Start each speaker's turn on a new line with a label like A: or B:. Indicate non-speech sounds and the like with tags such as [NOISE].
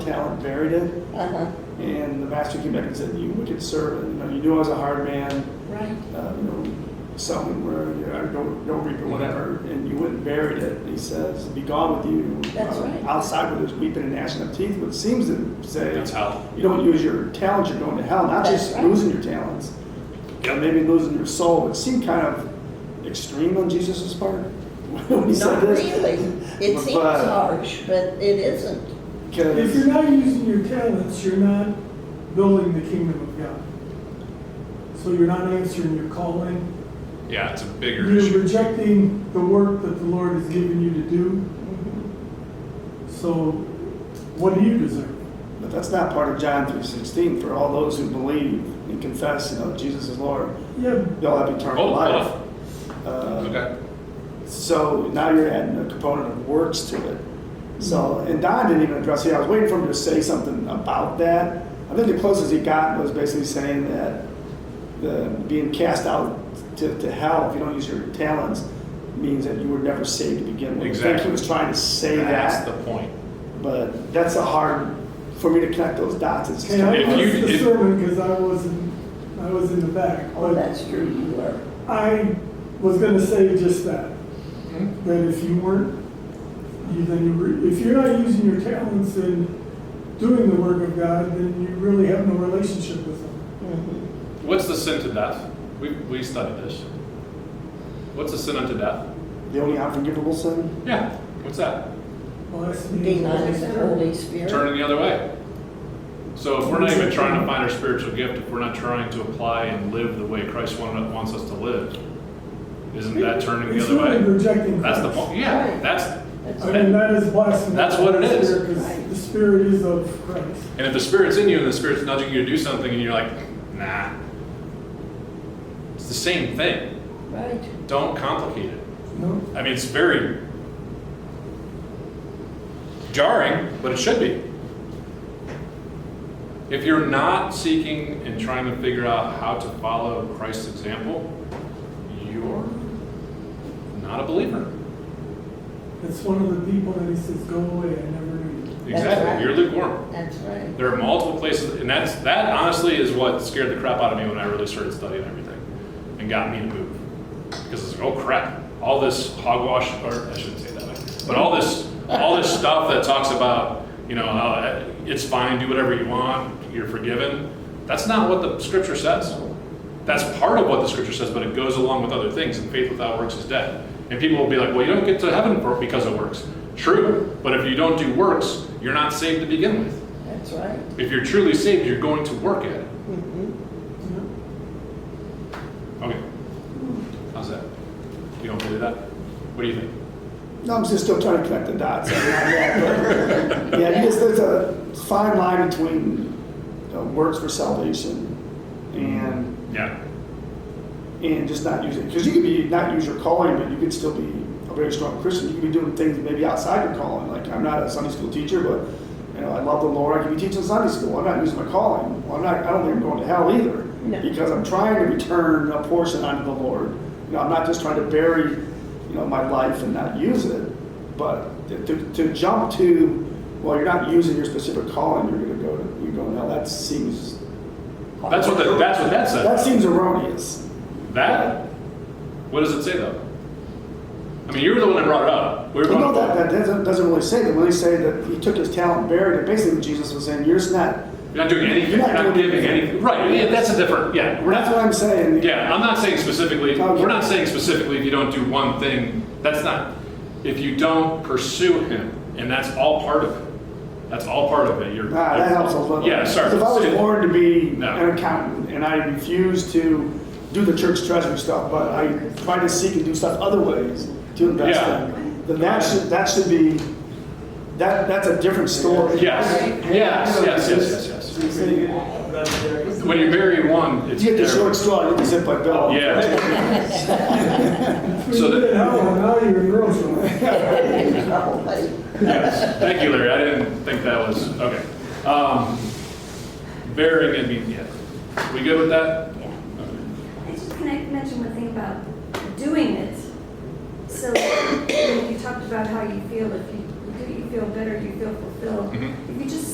A: talent buried it.
B: Uh-huh.
A: And the master came back and said, "You wicked servant! You know, you knew I was a hard man.
B: Right.
A: uh, you know, something where you know, don't don't reap or whatever, and you wouldn't buried it. He says, "Be gone with you." Uh,
B: That's right.
A: Outside with his weeping and gnashing of teeth, which seems to say
C: That's how.
A: you don't use your talents, you're going to hell. Not
B: That's
A: just
B: right.
A: losing your talents, but
C: Yep.
A: maybe losing your soul. It seemed kind of extreme on Jesus' part [LAUGHS] when he said
B: Not
A: this.
B: really. It seems
A: But-
B: harsh, but it isn't.
A: 'Cause-
D: If you're not using your talents, you're not building the kingdom of God. So you're not answering your calling.
C: Yeah, it's a bigger
D: You're
C: issue.
D: rejecting the work that the Lord has given you to do. So what do you deserve?
A: But that's not part of John 3.16 for all those who believe and confess, you know, Jesus is Lord.
D: Yeah,
A: They'll have eternal
C: Oh,
A: life. Uh,
C: Okay.
A: So now you're adding a component of works to it. So, and Don didn't even address it. I was waiting for him to say something about that. I think the closest he got was basically saying that the, being cast out to, to hell if you don't use your talents means that you were never saved to begin with. I think he
C: Exactly.
A: was trying to say
C: That's
A: that,
C: the point.
A: but that's a hard for me to connect those dots. It's
D: okay, I
C: If
A: kinda-
C: you-
D: missed the
C: if-
D: sermon because I wasn't, I was in the back.
B: Oh,
D: but-
B: that's true, you were.
D: I was going to say just that. That if you weren't, you, then you re- if you're not using your talents and doing the work of God, then you really have no relationship with Him.
B: Mhm.
C: What's the sin to death? We, we studied this. What's the sin unto death?
A: the only unforgivable sin.
C: Yeah. What's that?
D: Well, that's me.
B: Deny the Holy Spirit.
C: Turning the other way. So if we're not even trying to find our spiritual gift, if we're not trying to apply and live the way Christ wanted, wants us to live, isn't that turning the
D: It's
C: other
D: really
C: way?
D: rejecting
C: That's the
D: Christ.
C: point. Yeah.
B: Right.
C: That's
B: That's
D: I mean, that is blasphemy.
C: That's what it is.
D: Because the Spirit is of Christ.
C: and if the spirit's in you and the spirit's nudging you to do something and you're like, nah, it's the same thing.
B: Right.
C: Don't complicate it.
D: No?
C: I mean, it's very jarring, but it should be. If you're not seeking and trying to figure out how to follow Christ's example, you're not a believer.
D: It's one of the people that He says, go away, I never knew you.
B: right.
C: Exactly, you're lukewarm.
B: That's right.
C: There are multiple places, and that's that honestly is what scared the crap out of me when I really started studying everything and got me to move. Because it's like, oh crap, all this hogwash, or I shouldn't say it that way, but all this, all this stuff that talks about, you know, how uh, it's fine, do whatever you want, you're forgiven. That's not what the scripture says. That's part of what the scripture says, but it goes along with other things, and faith without works is dead. And people will be like, well, you don't get to heaven for- because of works. True, but if you don't do works, you're not saved to begin with.
B: That's right.
C: If you're truly saved, you're going to work at it.
B: Mhm.
C: Okay. How's that? You don't believe that? What do you think?
A: No, I'm just still trying to connect the dots. I'm not yet, but- [LAUGHS] yeah, because there's a fine line between uh, works for salvation and
C: Yeah.
A: and just not using because you could be not use your calling, but you could still be a very strong Christian. You could be doing things maybe outside your calling. Like I'm not a Sunday school teacher, but you know I love the Lord. I could be teaching Sunday school. I'm not using my calling. Well, I'm not. I don't think I'm going to hell either
B: No.
A: because I'm trying to return a portion unto the Lord. You know, I'm not just trying to bury you know my life and not use it, but to, to, to jump to well, you're not using your specific calling. You're going to go to you're going to hell. That seems
C: That's what the, that's what that
A: that
C: said.
A: seems erroneous.
C: That? What does it say though? I mean, you were the one that brought it up. We were
A: Well, no, that,
C: going,
A: that doesn't, doesn't really say that. When they say that he took his talent and buried it, basically Jesus was saying, you're just not.
C: you're not doing anything.
A: You're not
C: You're not
A: doing
C: giving
A: anything.
C: anything. Right. Yeah, that's a different. Yeah. We're
A: That's what
C: not.
A: I'm saying.
C: Yeah. I'm not saying specifically.
A: Okay.
C: We're not saying specifically if you don't do one thing. That's not. If you don't pursue Him, and that's all part of it. That's all part of it. You're.
A: Ah, that helps a little.
C: Yeah. Sorry.
A: If I was born to be
C: No.
A: an accountant and I refused to do the church treasury stuff, but I try to seek and do stuff other ways to invest
C: Yeah.
A: in, then that should, that should be, that, that's a different story.
C: Yes, yes, yes, yes, yes, yes. When you
B: [LAUGHS]
C: bury one, it's
A: You get the short
C: there.
A: straw, you can zip my bill.
C: Yeah,
A: [LAUGHS]
C: [LAUGHS] So
D: you
C: that-
D: did hell, and now you're in real trouble.
B: Probably.
C: yes. Thank you, Larry. I didn't think that was, okay. Um, Burying, I mean, yeah. We good with that?
E: I just can I mention one thing about doing it? So you know, you talked about how you feel if you do, it, you feel better, you feel fulfilled.
C: Mhm.
E: If you just